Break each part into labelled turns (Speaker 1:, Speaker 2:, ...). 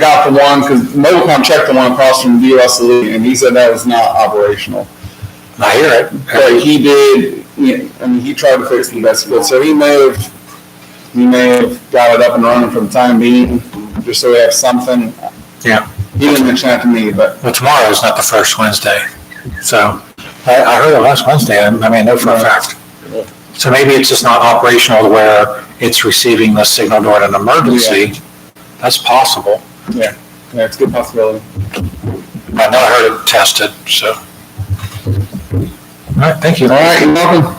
Speaker 1: got the one, because Mobilcom checked the one across from US Elite, and he said that was not operational.
Speaker 2: I hear it.
Speaker 1: But he did, you know, I mean, he tried to fix the best he could, so he may have, he may have got it up and running for the time being, just so we have something.
Speaker 2: Yeah.
Speaker 1: He didn't mention that to me, but
Speaker 2: Well, tomorrow is not the first Wednesday, so I, I heard it last Wednesday, I I mean, I know for a fact. So maybe it's just not operational to where it's receiving the signal during an emergency. That's possible.
Speaker 1: yeah, it's a good possibility.
Speaker 2: I know I heard it tested, so. All right, thank you.
Speaker 1: All right, you're welcome.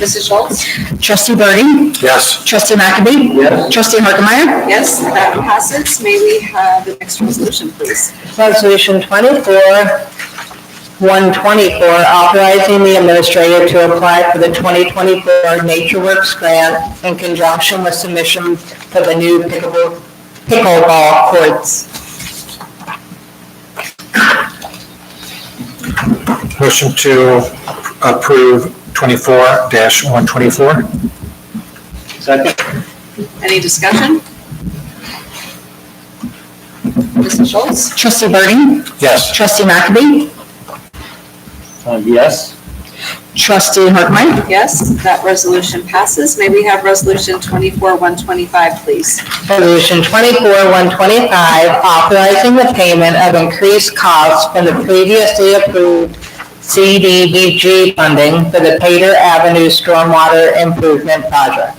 Speaker 3: Mrs. Schultz?
Speaker 4: Trustee Burden?
Speaker 2: Yes,
Speaker 4: Trustee McAbey?
Speaker 1: Yes.
Speaker 4: Trustee Harkemaier?
Speaker 3: Yes, that passes. May we have the next resolution, please?
Speaker 5: Resolution 24, 124, authorizing the administrator to apply for the 2024 Nature Works grant in conjunction with submission for the new pickleball pickleball courts.
Speaker 2: motion to approve twenty-four dash one twenty-four?
Speaker 3: Any discussion? Mrs. Schultz?
Speaker 4: Trustee Burden?
Speaker 2: Yes,
Speaker 4: Trustee McAbey?
Speaker 1: Uh, Yes.
Speaker 4: Trustee Harkemaier?
Speaker 3: Yes, that resolution passes. May we have Resolution 24-125, please?
Speaker 5: Resolution 24, 125, authorizing the payment of increased costs from the previously approved CDBG funding for the Pater Avenue Stormwater Improvement Project.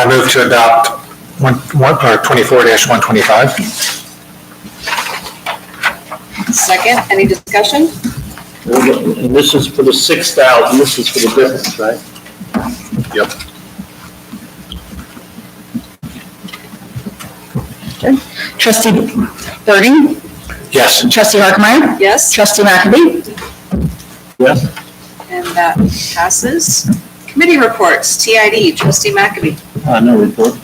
Speaker 2: I move to adopt one, one, or twenty-four dash one twenty-five?
Speaker 3: Second, any discussion?
Speaker 6: And this is for the six thousand, this is for the difference, right?
Speaker 4: Trustee Burden?
Speaker 2: Yes.
Speaker 4: Trustee Harkemaier?
Speaker 3: Yes,
Speaker 4: Trustee McAbey?
Speaker 6: Yes.
Speaker 3: and that passes. Committee reports, TID, Trustee McAbey.
Speaker 6: Uh, no report.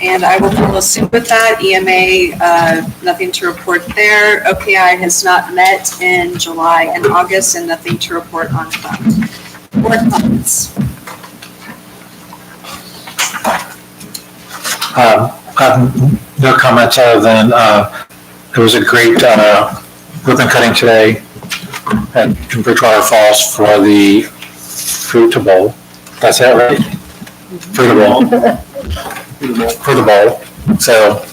Speaker 3: And I will follow suit with that. EMA, uh, nothing to report there. OPI has not met in July and August, and nothing to report on that. Board comments?
Speaker 2: Um, I have No comments other than, uh, there was a great uh, ribbon cutting today at in Bridgewater Falls for the Fruita Bowl. That's it, right? Fruita Bowl. Fruita Bowl. So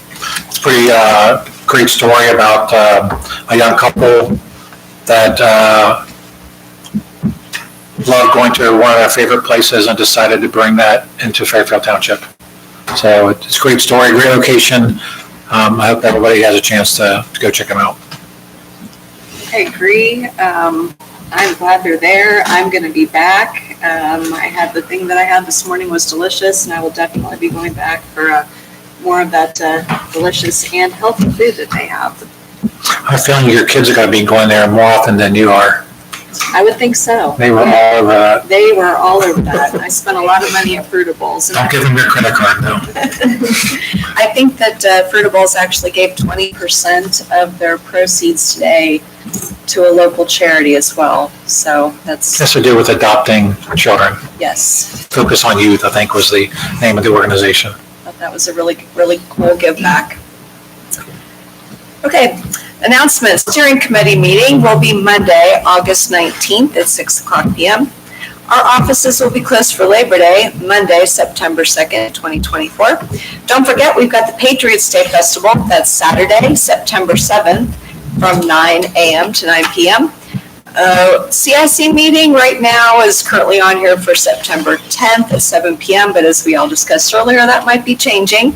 Speaker 2: it's pretty uh, great story about uh, a young couple that uh, loved going to one of their favorite places and decided to bring that into Fairfield Township. So it's a great story, great location. Um, I hope everybody has a chance to, to go check them out.
Speaker 3: I agree. Um, I'm glad they're there. I'm going to be back. Um, I had the thing that I had this morning was delicious, and I will definitely be going back for uh, more of that uh, delicious and healthy food that they have.
Speaker 2: I'm feeling your kids are gonna be going there more often than you are.
Speaker 3: I would think so.
Speaker 2: They were all uh, over that.
Speaker 3: They were all over that. I spent a lot of money at Fruita Bowls. and I-
Speaker 2: Don't give them your credit card though.
Speaker 3: I think that uh, Fruitables actually gave twenty percent of their proceeds today to a local charity as well. So that's,
Speaker 2: Has to do with adopting children.
Speaker 3: yes,
Speaker 2: Focus on Youth, I think, was the name of the organization.
Speaker 3: thought that was a really, really cool give back. Okay, announcements. Steering committee meeting will be Monday, August nineteenth at six o'clock PM. Our offices will be closed for Labor Day, Monday, September second, twenty twenty-four. Don't forget, we've got the Patriots Day Festival. That's Saturday, September seventh, from nine AM to nine PM. Uh, CIC meeting right now is currently on here for September 10th at 7 PM, but as we all discussed earlier, that might be changing.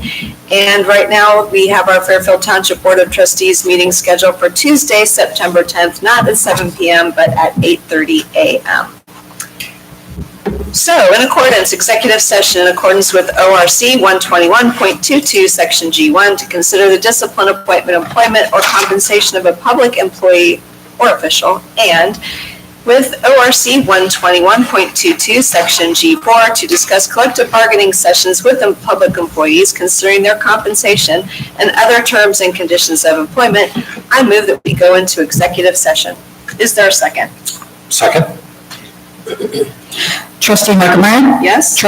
Speaker 3: And right now, we have our Fairfield Township Board of Trustees meeting scheduled for Tuesday, September 10th, not at 7 PM, but at 8:30 AM. So in accordance, executive session in accordance with ORC 121.22, Section G1, to consider the discipline, appointment, employment, or compensation of a public employee or official, and with ORC 121.22, Section G4, to discuss collective bargaining sessions with em- public employees concerning their compensation and other terms and conditions of employment, I move that we go into executive session. Is there a second?
Speaker 2: Second?
Speaker 4: Trustee Harkemaier?
Speaker 3: Yes?